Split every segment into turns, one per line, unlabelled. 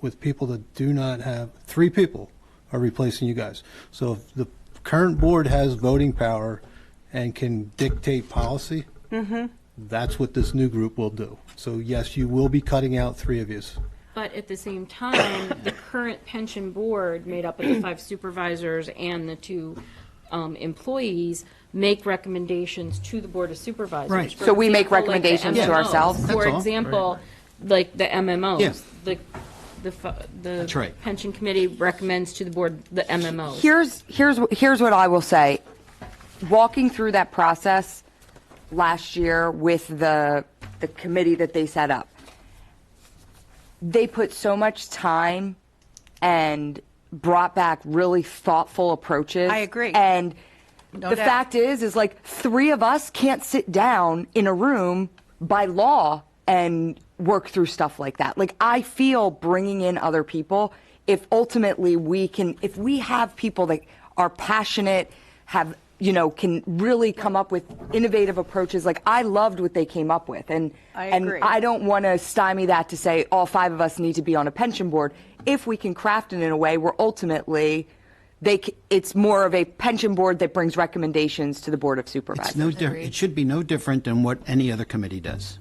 with people that do not have, three people are replacing you guys. So if the current board has voting power and can dictate policy, that's what this new group will do. So yes, you will be cutting out three of yous.
But at the same time, the current pension board, made up of the five supervisors and the two um, employees, make recommendations to the Board of Supervisors.
Right.
For
So we make
example, like the
recommendations to
MMOs.
ourselves?
That's
For
all.
example, like the
Yeah.
MMOs, the, the, fu-
That's
the
right.
pension committee recommends to the board the MMOs.
Here's here's wh- here's what I will say. Walking through that process last year with the the committee that they set up, they put so much time and brought back really thoughtful approaches.
I agree.
And the
doubt.
fact is, is like three of us can't sit down in a room by law and work through stuff like that. Like I feel bringing in other people, if ultimately we can, if we have people that are passionate, have you know, can really come up with innovative approaches. Like I loved what they came up with, and
I agree.
and I don't want to stymie that to say all five of us need to be on a pension board. If we can craft it in a way where ultimately they c- it's more of a pension board that brings recommendations to the board of supervisors.
It's no, di- it should be no different than what any other committee does.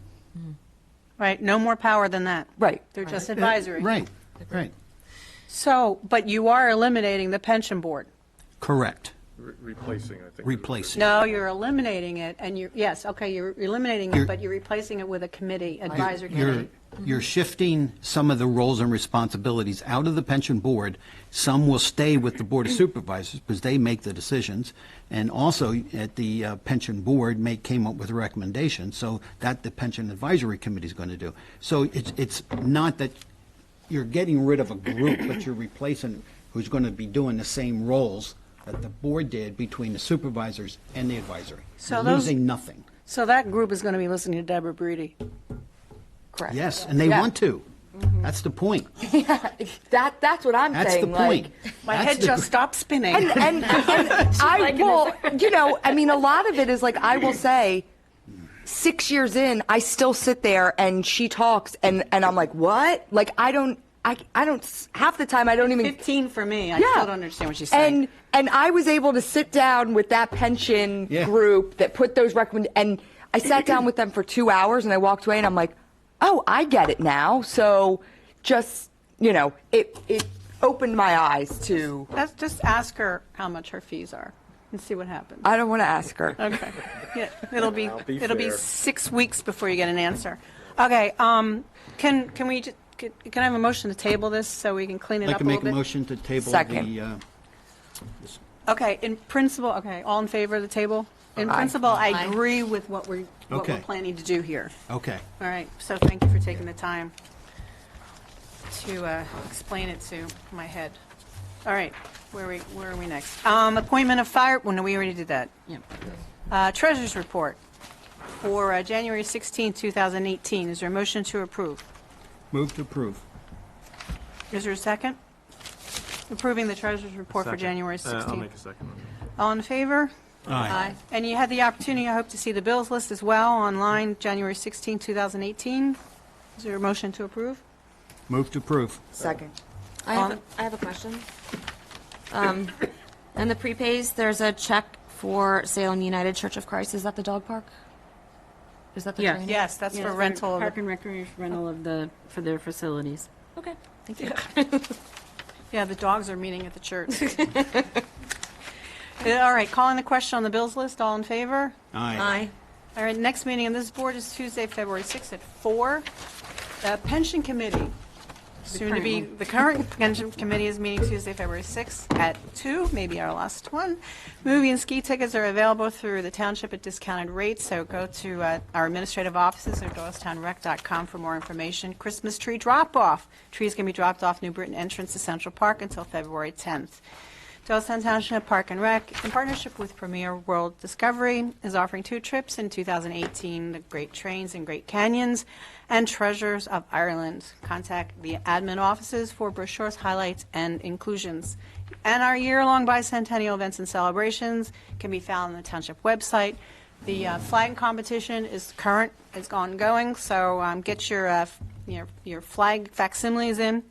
Right, no more power than that.
Right.
They're just advisory.
Right, right,
So, but you are eliminating the pension board.
correct,
Re- Replacing, I think.
replacing.
No, you're eliminating it, and you're, yes, okay, you're eliminating it,
You're-
but you're replacing it with a committee,
You're-
advisory
You're,
committee.
you're shifting some of the roles and responsibilities out of the pension board. Some will stay with the Board of Supervisors because they make the decisions. And also at the uh, pension board make, came up with recommendations. So that the pension advisory committee is going to do. So it's, it's not that you're getting rid of a group, but you're replacing who's going to be doing the same roles that the board did between the supervisors and the advisory.
So
You're
those-
Losing nothing.
So that group is going to be listening to Deborah Breedy.
Correct.
Yes, and they
Yeah.
want to. That's the point.
That that's what I'm
That's
saying.
the point.
Like,
My
That's
head
the-
just stopped spinning.
and, and I will, you know, I mean, a lot of it is like, I will say, six years in, I still sit there and she talks and, and I'm like, what? Like, I don't, I, I don't, s- half the time I don't even.
15 for me, I
Yeah.
still don't understand what she's saying.
And, and I was able to sit down with that pension
Yeah.
group that put those recommend, and I sat down with them for two hours and I walked away and I'm like, oh, I get it now. So just, you know, it, it opened my eyes to,
Let's just ask her how much her fees are and see what happens.
I don't want to ask her.
Okay. Yeah, It'll be,
I'll be
it'll be
fair.
six weeks before you get an answer. Okay, um, can, can we, ju- can can I have a motion to table this so we can clean it
I'd like
up a
to
little
make a
bit?
motion to table
Second.
the, uh,
Okay, in principle, okay, all in favor of the table? In
Aye.
principle, I agree with what we're, what we're
Okay.
planning to do here.
okay.
All right, so thank you for taking the time to uh, explain it to my head. All right, where are we, where are we next? Um, Appointment of fire, well, no, we already did that. Uh, Treasurers' report for uh, January 16, 2018. Is there a motion to approve?
Move to approve.
Is there a second? Approving the treasurer's report for
Second.
January
Uh, I'll
16.
make a second. one.
All in favor? Aye. And you had the opportunity, I hope, to see the bills list as well online, January 16, 2018. Is there a motion to approve?
Move to approve.
Second.
I have, a- I have a question. Um, And the prepays, there's a check for Salem United Church of Christ. Is that the dog park? Is that the
Yes.
training?
Yes, that's for rental. of the-
Park and Recreation rental of the, for their facilities.
Okay, thank you.
Yeah, the dogs are meeting at the church. Yeah, All right, calling the question on the bills list, all in favor?
Aye.
All right, next meeting on this board is Tuesday, February 6th at 4. Uh, Pension Committee, soon to be, the current pension committee is meeting Tuesday, February 6th at 2, maybe our last one. Movie and ski tickets are available through the township at discounted rates, so go to uh, our administrative offices or doylestownrec.com for more information. Christmas tree drop-off, trees can be dropped off New Britain entrance to Central Park until February 10th. Doylestown Township Park and Rec, in partnership with Premier World Discovery, is offering two trips in 2018, the Great Trains and Great Canyons, and Treasures of Ireland. Contact the admin offices for brochures, highlights, and inclusions. And our year-long bicentennial events and celebrations can be found on the township website. The uh, flag competition is current, is ongoing, so um, get your, uh, f- your your flag facsimiles in